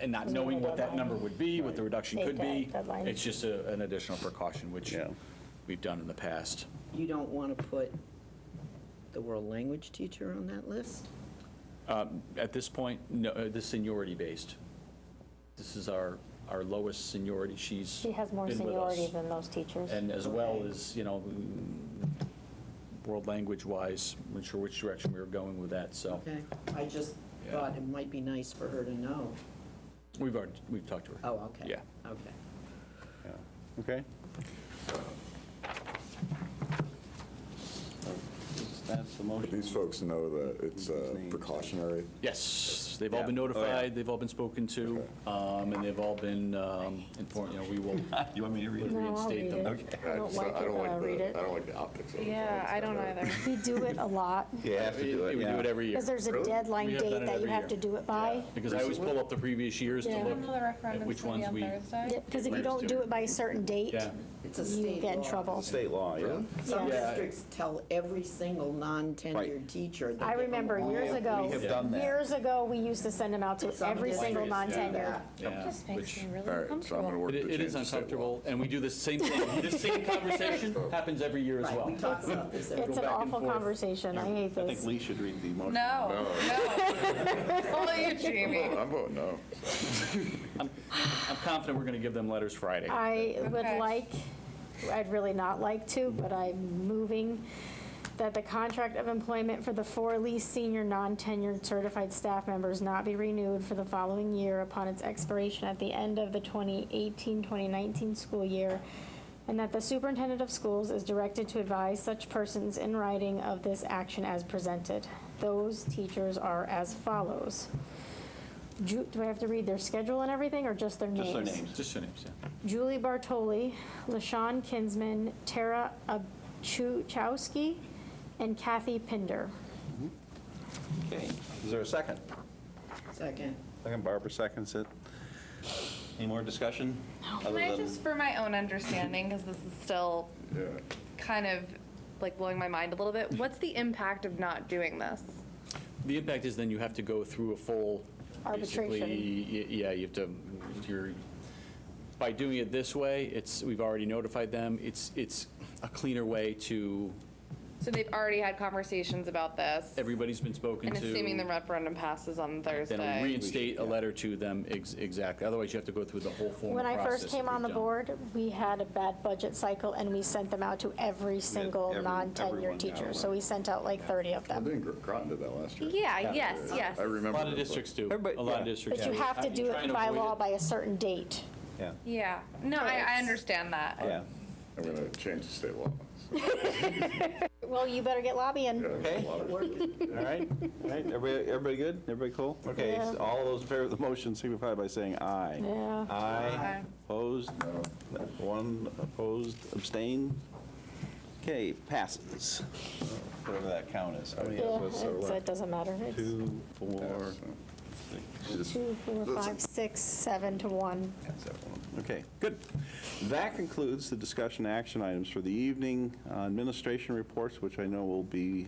and not knowing what that number would be, what the reduction could be. Deadline, deadline. It's just a- an additional precaution, which Yeah. we've done in the past. You don't want to put the world language teacher on that list? At this point, no, uh, this seniority based. This is our, our lowest seniority. She's. She has more been with us. seniority than those teachers. And as well as, you know, mm, world language wise, I'm not sure which direction we were going with that, so. Okay, I just Yeah. thought it might be nice for her to know. We've already, we've talked to her. Oh, okay. Yeah. Okay. Okay? That's the motion. These folks know that it's uh, Names. precautionary. Yes, they've all been Yeah. Oh, yeah. notified, they've all been spoken to, um, and they've all been um, informed, you know, we will You want me to read it? No, I'll reinstate read them. it. I don't just- like it, don't but I'll the- read it. I don't like the optics of it. Yeah, I don't either. We do it a lot, You have to do it, We do it yeah. every year. because there's a We deadline have done date it that you every have year. to do it by. Because I always pull up the previous years to Yeah. look When will the at referendum which be ones on we. Thursday? Because if you don't do it by a certain date, Yeah, It's a you state get in law. trouble. State law, yeah. Some Yeah. districts tell every single non-tenured Right. teacher. that I they remember don't years want- ago, We have done that. years ago, we used to send them out to Some every single districts do non-tenured. that. yeah. Just makes which- me really All right, so I'm going to uncomfortable. work It to it change is the state law. uncomfortable, and we do the same thing, this same conversation happens every year as Right, well. we talk about this every It's an back and awful forth. conversation, I hate I think this. Lee should read the motion. No, no. Only you, Jamie. I'm voting no. I'm confident we're going to give them letters Friday. I would Okay. like, I'd really not like to, but I'm moving that the contract of employment for the four least senior non-tenured certified staff members not be renewed for the following year upon its expiration at the end of the 2018-2019 school year, and that the superintendent of schools is directed to advise such persons in writing of this action as presented. Those teachers are as follows. Ju- Do I have to read their schedule and everything, or just their names? Just their names. Just your names, yeah. Julie Bartoli, LaShawn Kinsman, Tara Abchowski, and Kathy Pinder. Okay. Is there a second? Second. Second, Barbara seconds it. Any more discussion? Can Other I than- just, for my own understanding, because this is still kind of like blowing my mind a little bit, what's the impact of not doing this? The impact is then you have to go through a full. Arbitration. basically, y- Yeah, you have to, you're, by doing it this way, it's, we've already notified them. It's, it's a cleaner way to, So they've already had conversations about this. everybody's been spoken And to. assuming the referendum passes on Thursday. Then we reinstate a letter to them, ex- exactly. Otherwise, you have to go through the whole formal When process. I first that came we've on the done. board, we had a bad budget cycle, and we sent them out to every single every- everyone non-tenured got teacher. one. So we sent out like 30 of I them. think Groton did that last year. Yeah, yes, yes. I A remember. lot of it, but- districts do. Everybody- A lot of yeah. districts. But you have to do try it and by avoid law it. by a certain date. Yeah, Yeah, no, I, I Yes. understand that. yeah. I'm going to change the state law. Well, you better get lobbying. Okay, all right, all right, everybody, everybody good? Everybody cool? Okay, Yeah. so all those in favor of the motion signify by saying aye. Yeah. Aye, Aye. opposed, one opposed, abstained. Okay, passes. Whatever that count is. How many Oh, Yeah, of us are it's- it left? doesn't matter. It's uh, Two, four, Just- two, four, five, six, seven to one. That's that one. Okay, good. That concludes the discussion action items for the evening. Uh, Administration reports, which I know will be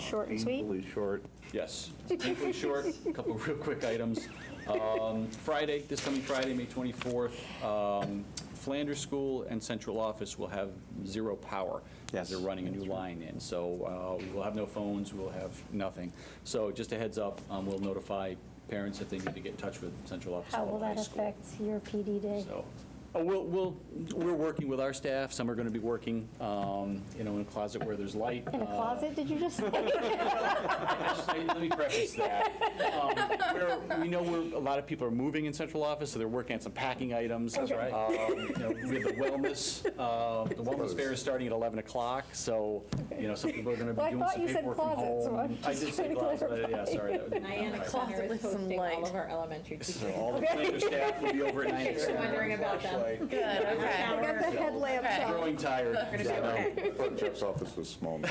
Short and sweet. equally short. Yes. Painfully short, a couple of real quick items. Um, Friday, this coming Friday, May 24th, um, Flanders School and Central Office will have zero power. Yes. as They're running a new line in, so uh, we will have no phones, we will have nothing. So just a heads up, um, we'll notify parents if they need to get in touch with Central Office. How about will high that school. affect your PD day? So, oh, we'll, we'll, we're working with our staff, some are going to be working, um, you know, in a closet where there's light. In a uh, closet, did you just say? Just Let let me preface that. Um, we're- We know where, a lot of people are moving in central office, so they're working on some packing items. That's right. We have the wellness, uh, the wellness fair is starting at 11 o'clock, so, you know, some people are going to Well, I be doing thought some you said paperwork from closets, so home. I'm I just did say trying to closet, but yeah, clarify. sorry. that would- Niana Closet is hosting all of our elementary So teachers. All the Flanders staff will be over at 9 You're o'clock. wondering about them. Good, okay. I got the headlamps Okay. out. Growing tired. Yeah, no, I thought Jeff's office was small now.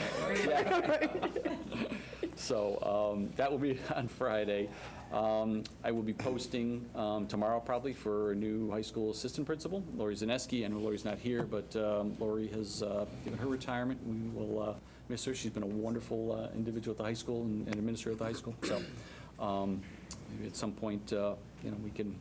So um, that will be on Friday. Um, I will be posting um, tomorrow probably for a new high school assistant principal, Lori Zaneski. I know Lori's not here, but um, Lori has uh, given her retirement. We will uh, miss her. She's been a wonderful uh, individual at the high school and and administrator at the high school. So um, maybe at some point, uh, you know, we can